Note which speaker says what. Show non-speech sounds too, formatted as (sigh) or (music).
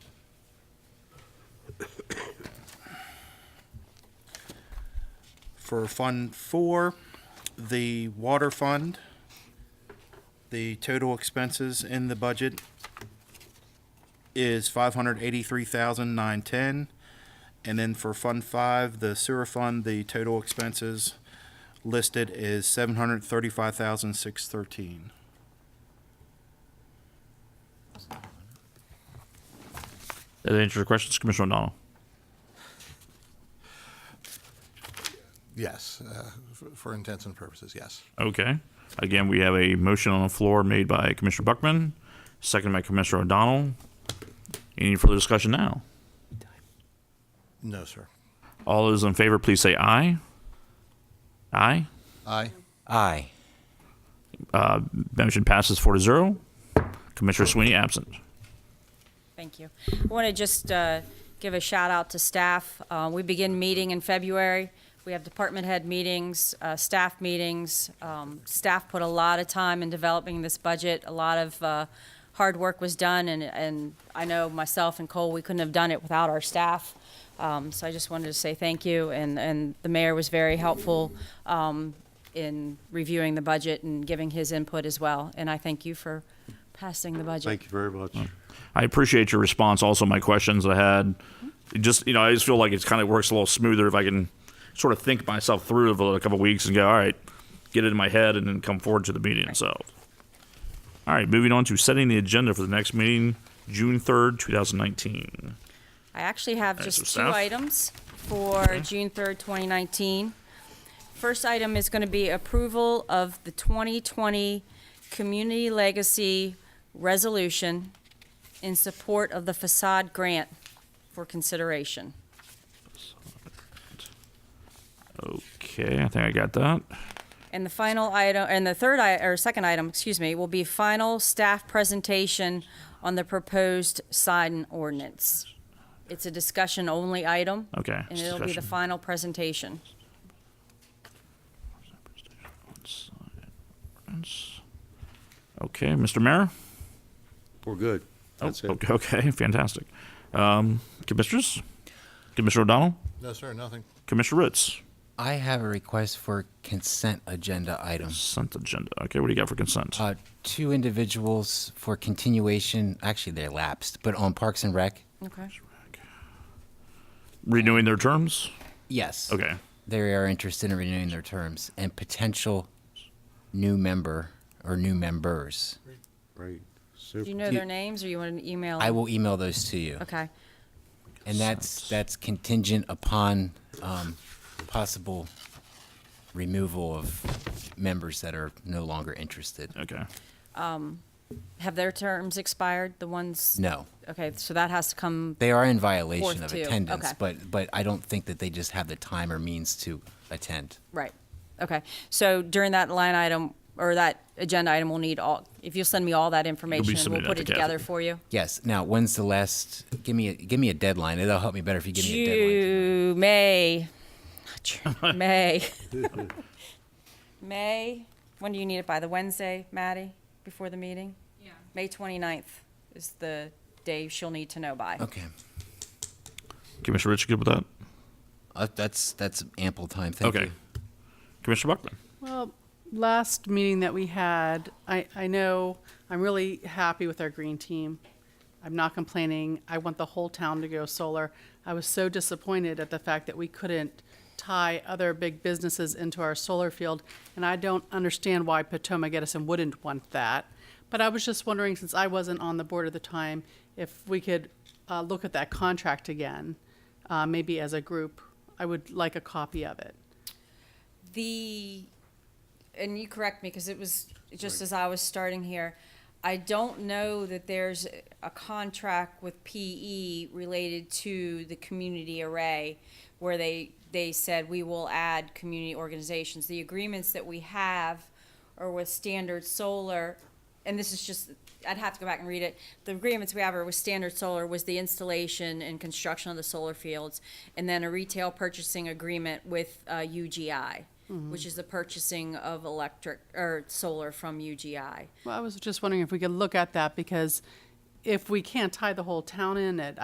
Speaker 1: for Fund Four, the water fund. The total expenses in the budget is five hundred eighty-three thousand nine ten. And then for Fund Five, the sewer fund, the total expenses listed is seven hundred thirty-five thousand six thirteen.
Speaker 2: That answers your questions, Commissioner O'Donnell.
Speaker 3: Yes, uh, f- for intents and purposes, yes.
Speaker 2: Okay. Again, we have a motion on the floor made by Commissioner Buckman, seconded by Commissioner O'Donnell. Any further discussion now?
Speaker 3: No, sir.
Speaker 2: All those in favor, please say aye. Aye.
Speaker 3: Aye.
Speaker 4: Aye.
Speaker 2: Motion passes four to zero. Commissioner Sweeney absent.
Speaker 5: Thank you. I want to just uh, give a shout out to staff. Uh, We begin meeting in February. We have department head meetings, uh, staff meetings. Um, Staff put a lot of time in developing this budget. A lot of uh, hard work was done, and- and I know myself and Cole, we couldn't have done it without our staff. Um, So I just wanted to say thank you, and and the mayor was very helpful um, in reviewing the budget and giving his input as well. And I thank you for passing the budget.
Speaker 6: Thank you very much.
Speaker 2: I appreciate your response. Also, my questions I had, It just you know, I just feel like it's kind of works a little smoother if I can sort of think myself through over a couple weeks and go, all right, get it in my head, and then come forward to the meeting itself. All right, moving on to setting the agenda for the next meeting, June third, two thousand nineteen.
Speaker 5: I actually have
Speaker 2: Thanks,
Speaker 5: just two
Speaker 2: staff.
Speaker 5: items for June 3rd, 2019. First item is going to be approval of the 2020 Community Legacy Resolution in support of the facade grant for consideration.
Speaker 2: Okay, I think I got that.
Speaker 5: And the final item, and the third, i- or second item, excuse me, will be final staff presentation on the proposed sign ordinance. It's a discussion only item.
Speaker 2: Okay,
Speaker 5: And it'll be the
Speaker 2: Oh, discussion.
Speaker 5: final presentation.
Speaker 2: Okay, Mr. Mayor.
Speaker 6: We're good. That's it.
Speaker 2: Oh, Okay, okay, (laughs) fantastic. Um, commissioners, Commissioner O'Donnell,
Speaker 3: No, sir, nothing.
Speaker 2: Commissioner Ritz.
Speaker 4: I have a request for consent agenda item.
Speaker 2: Consent agenda. Okay, what do you got for consent?
Speaker 4: Uh, two individuals for continuation, actually they're lapsed, but on Parks and Rec?
Speaker 5: Okay.
Speaker 2: Renewing their terms?
Speaker 4: Yes.
Speaker 2: Okay.
Speaker 4: They are interested in renewing their terms and potential new member or new members.
Speaker 6: Great.
Speaker 5: Do you
Speaker 6: Super.
Speaker 5: know
Speaker 4: Do you-
Speaker 5: their names, or you want an email?
Speaker 4: I will email those to you.
Speaker 5: Okay,
Speaker 4: And that's, that's contingent upon, um, possible removal of members that are no longer interested.
Speaker 2: Okay.
Speaker 5: have their terms expired, the ones?
Speaker 4: No.
Speaker 5: Okay, so that has to come,
Speaker 4: They are in violation
Speaker 5: Fourth
Speaker 4: of
Speaker 5: too,
Speaker 4: attendance,
Speaker 5: okay.
Speaker 4: but, but I don't think that they just have the time or means to attend.
Speaker 5: right, okay. So during that line item, or that agenda item, we'll need all, if you'll send me all that information, we'll
Speaker 2: submitting
Speaker 5: put
Speaker 2: that
Speaker 5: it
Speaker 2: to
Speaker 5: together
Speaker 2: Kathy.
Speaker 5: for you.
Speaker 4: Yes, now, when's the last, give me, a give me a deadline, it'll help me better if you give me a deadline.
Speaker 5: June, May, not June, May. May, when do you need it by? The Wednesday, Maddie, before the meeting? Yeah. May 29th is the day she'll need to know by.
Speaker 4: Okay,
Speaker 2: Commissioner Rich, you good with that?
Speaker 4: Uh, that's, that's ample time, thank
Speaker 2: okay.
Speaker 4: you.
Speaker 2: Commissioner Buckman.
Speaker 7: Well, last meeting that we had, I, I know, I'm really happy with our green team. I'm not complaining. I want the whole town to go solar. I was so disappointed at the fact that we couldn't tie other big businesses into our solar field, and I don't understand why Potomac Edison wouldn't want that. But I was just wondering, since I wasn't on the board at the time, if we could uh, look at that contract again, uh, maybe as a group. I would like a copy of it.
Speaker 5: The, and you correct me, because it was just as I was starting here, I don't know that there's a contract with PE related to the community array where they, they said we will add community organizations. The agreements that we have are with Standard Solar, and this is just, I'd have to go back and read it. The agreements we have are with Standard Solar was the installation and construction of the solar fields, and then a retail purchasing agreement with uh, UGI, which is the purchasing of electric, or solar from UGI.
Speaker 7: Well, I was just wondering if we could look at that, because if we can't tie the whole town in, it,